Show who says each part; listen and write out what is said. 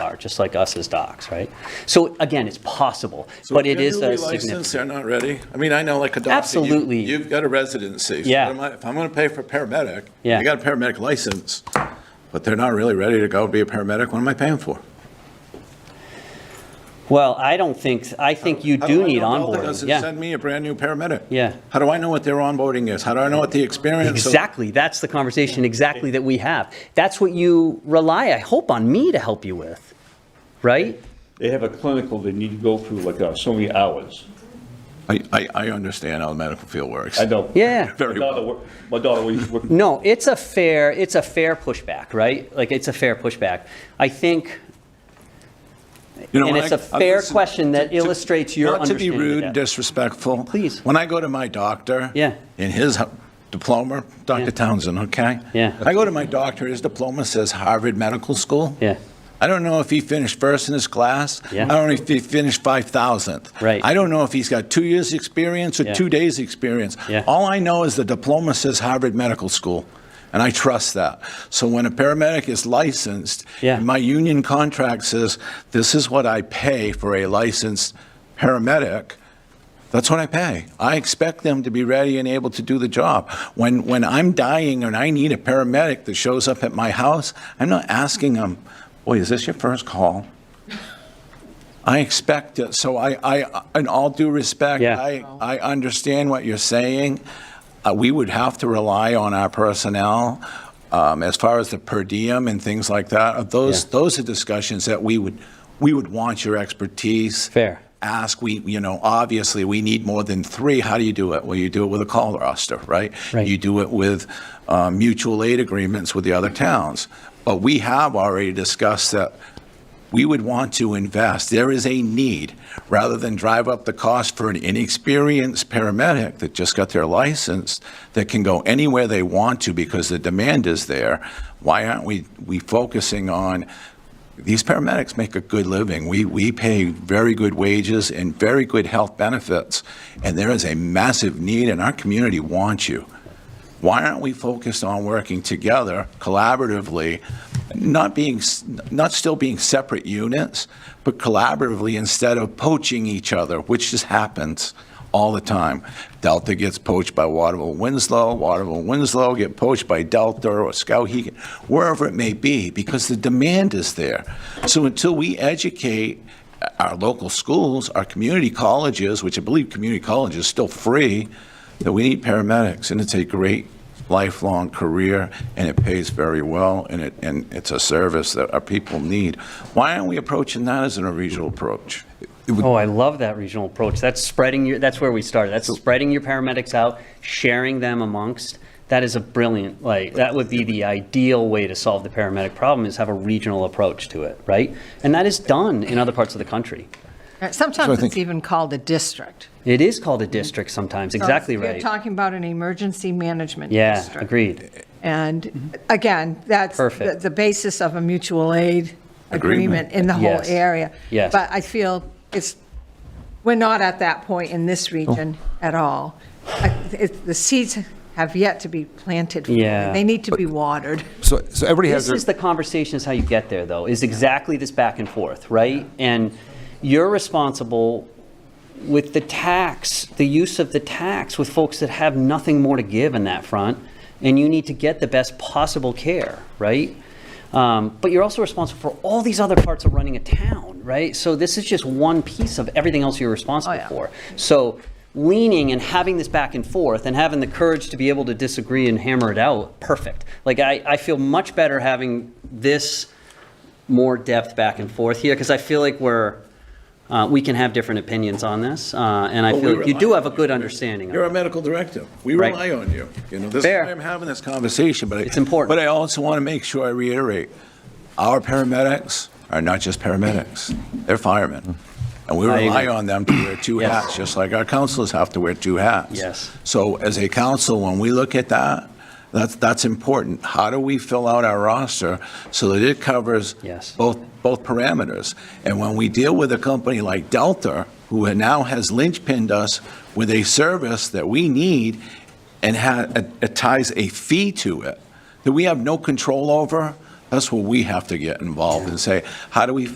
Speaker 1: are, just like us as docs, right? So again, it's possible, but it is a significant.
Speaker 2: They're not ready. I mean, I know like Adopsy. you-
Speaker 1: Absolutely.
Speaker 2: You've got a residency. So
Speaker 1: Yeah.
Speaker 2: am I- If I'm going to pay for paramedic,
Speaker 1: Yeah.
Speaker 2: I got a paramedic license, but they're not really ready to go be a paramedic. What am I paying for?
Speaker 1: Well, I don't think, I think you
Speaker 2: How do
Speaker 1: do
Speaker 2: I
Speaker 1: need
Speaker 2: know Delta
Speaker 1: onboarding,
Speaker 2: Doesn't
Speaker 1: yeah.
Speaker 2: send me a brand-new paramedic.
Speaker 1: Yeah.
Speaker 2: How do I know what their onboarding is? How do I know what the experience? of-
Speaker 1: Exactly, that's the conversation exactly that we have. That's what you rely, I hope, on me to help you with, right?
Speaker 3: They have a clinical they need to go through like uh, so many hours.
Speaker 2: I, I, I understand how the medical field works.
Speaker 3: I know.
Speaker 1: Yeah.
Speaker 3: My
Speaker 2: Very
Speaker 3: daughter,
Speaker 2: well.
Speaker 3: wor- my daughter was working.
Speaker 1: No, it's a fair, it's a fair pushback, right? Like, it's a fair pushback. I think,
Speaker 2: You know,
Speaker 1: And
Speaker 2: when
Speaker 1: it's
Speaker 2: I-
Speaker 1: a
Speaker 2: I
Speaker 1: fair
Speaker 2: listen-
Speaker 1: question that
Speaker 2: to- to-
Speaker 1: illustrates your
Speaker 2: Not
Speaker 1: understanding
Speaker 2: to
Speaker 1: of
Speaker 2: be rude,
Speaker 1: that.
Speaker 2: and disrespectful.
Speaker 1: Please.
Speaker 2: When I go to my doctor.
Speaker 1: Yeah.
Speaker 2: In his h- diploma,
Speaker 1: Yeah.
Speaker 2: Dr. Townsend, okay?
Speaker 1: Yeah.
Speaker 2: I go to my doctor, his diploma says Harvard Medical School.
Speaker 1: Yeah.
Speaker 2: I don't know if he finished first in his class.
Speaker 1: Yeah.
Speaker 2: I don't know if he finished 5,000th.
Speaker 1: Right.
Speaker 2: I don't know if he's got two years' experience or
Speaker 1: Yeah.
Speaker 2: two days' experience.
Speaker 1: Yeah.
Speaker 2: All I know is the diploma says Harvard Medical School, and I trust that. So when a paramedic is licensed,
Speaker 1: Yeah.
Speaker 2: and my union contract says, this is what I pay for a licensed paramedic, that's what I pay. I expect them to be ready and able to do the job. When, when I'm dying and I need a paramedic that shows up at my house, I'm not asking them, boy, is this your first call? I expect it, so I, I, in all due respect,
Speaker 1: Yeah.
Speaker 2: I, I understand what you're saying. Uh, We would have to rely on our personnel um, as far as the per diem and things like that. Uh, Those,
Speaker 1: Yeah.
Speaker 2: those are discussions that we would, we would want your expertise.
Speaker 1: Fair.
Speaker 2: Ask, we, you know, obviously, we need more than three. How do you do it? Well, you do it with a call roster, right?
Speaker 1: Right.
Speaker 2: You do it with uh, mutual aid agreements with the other towns. But we have already discussed that we would want to invest. There is a need, rather than drive up the cost for an inexperienced paramedic that just got their license, that can go anywhere they want to because the demand is there. Why aren't we, we focusing on, these paramedics make a good living. We, we pay very good wages and very good health benefits, and there is a massive need, and our community wants you why aren't we focused on working together collaboratively, not being, not still being separate units, but collaboratively instead of poaching each other, which just happens all the time. Delta gets poached by Waterville Winslow, Waterville Winslow get poached by Delta or Skowhegan, wherever it may be, because the demand is there. So until we educate our local schools, our community colleges, which I believe community college is still free, that we need paramedics, and it's a great lifelong career, and it pays very well, and it, and it's a service that our people need. Why aren't we approaching that as a regional approach?
Speaker 1: Oh, I love that regional approach. That's spreading your, that's where we started. That's spreading your paramedics out, sharing them amongst. That is a brilliant, like, that would be the ideal way to solve the paramedic problem is have a regional approach to it, right? And that is done in other parts of the country.
Speaker 4: Right,
Speaker 2: So I
Speaker 4: Sometimes
Speaker 2: think-
Speaker 4: it's even called a district.
Speaker 1: It is called a district sometimes,
Speaker 4: So
Speaker 1: exactly
Speaker 4: if
Speaker 1: right.
Speaker 4: You're talking about an emergency management
Speaker 1: Yeah,
Speaker 4: district.
Speaker 1: agreed.
Speaker 4: And again, that's the
Speaker 1: Perfect.
Speaker 4: the basis of a mutual aid agreement in the whole
Speaker 1: Yes,
Speaker 4: area.
Speaker 1: yes.
Speaker 4: But I feel it's, we're not at that point in
Speaker 2: Oh.
Speaker 4: this region at all. I- it's- The seeds have yet to be planted. fully.
Speaker 1: Yeah.
Speaker 4: They need to be watered.
Speaker 5: So, so everybody has
Speaker 1: This
Speaker 5: their,
Speaker 1: is the conversation is how you get there, though, is exactly this back and forth, right? And you're responsible with the tax, the use of the tax with folks that have nothing more to give in that front, and you need to get the best possible care, right? Um, but you're also responsible for all these other parts of running a town, right? So this is just one piece of everything else you're responsible
Speaker 4: Oh, yeah.
Speaker 1: for. So leaning and having this back and forth and having the courage to be able to disagree and hammer it out, perfect. Like I, I feel much better having this more depth back and forth here because I feel like we're uh, we can have different opinions on this, uh, and I
Speaker 2: Well,
Speaker 1: feel
Speaker 2: we
Speaker 1: like you
Speaker 2: rely
Speaker 1: do
Speaker 2: on
Speaker 1: have a good understanding. of
Speaker 2: You're a
Speaker 1: it.
Speaker 2: medical director. We
Speaker 1: Right.
Speaker 2: rely on you. You know, this is
Speaker 1: Fair.
Speaker 2: why I'm having this conversation, but. I-
Speaker 1: It's important.
Speaker 2: But I also want to make sure I reiterate, our paramedics are not just paramedics. They're firemen. And we
Speaker 1: I agree.
Speaker 2: rely on them to wear two
Speaker 1: Yes.
Speaker 2: hats, just like our counselors have to wear two hats.
Speaker 1: Yes.
Speaker 2: So as a council, when we look at that, that's, that's important. How do we fill out our roster so that it covers
Speaker 1: Yes.
Speaker 2: both, both parameters? And when we deal with a company like Delta, who now has linchpinned us with a service that we need and ha- it ties a fee to it that we have no control over, that's where we have to get involved and say, how do we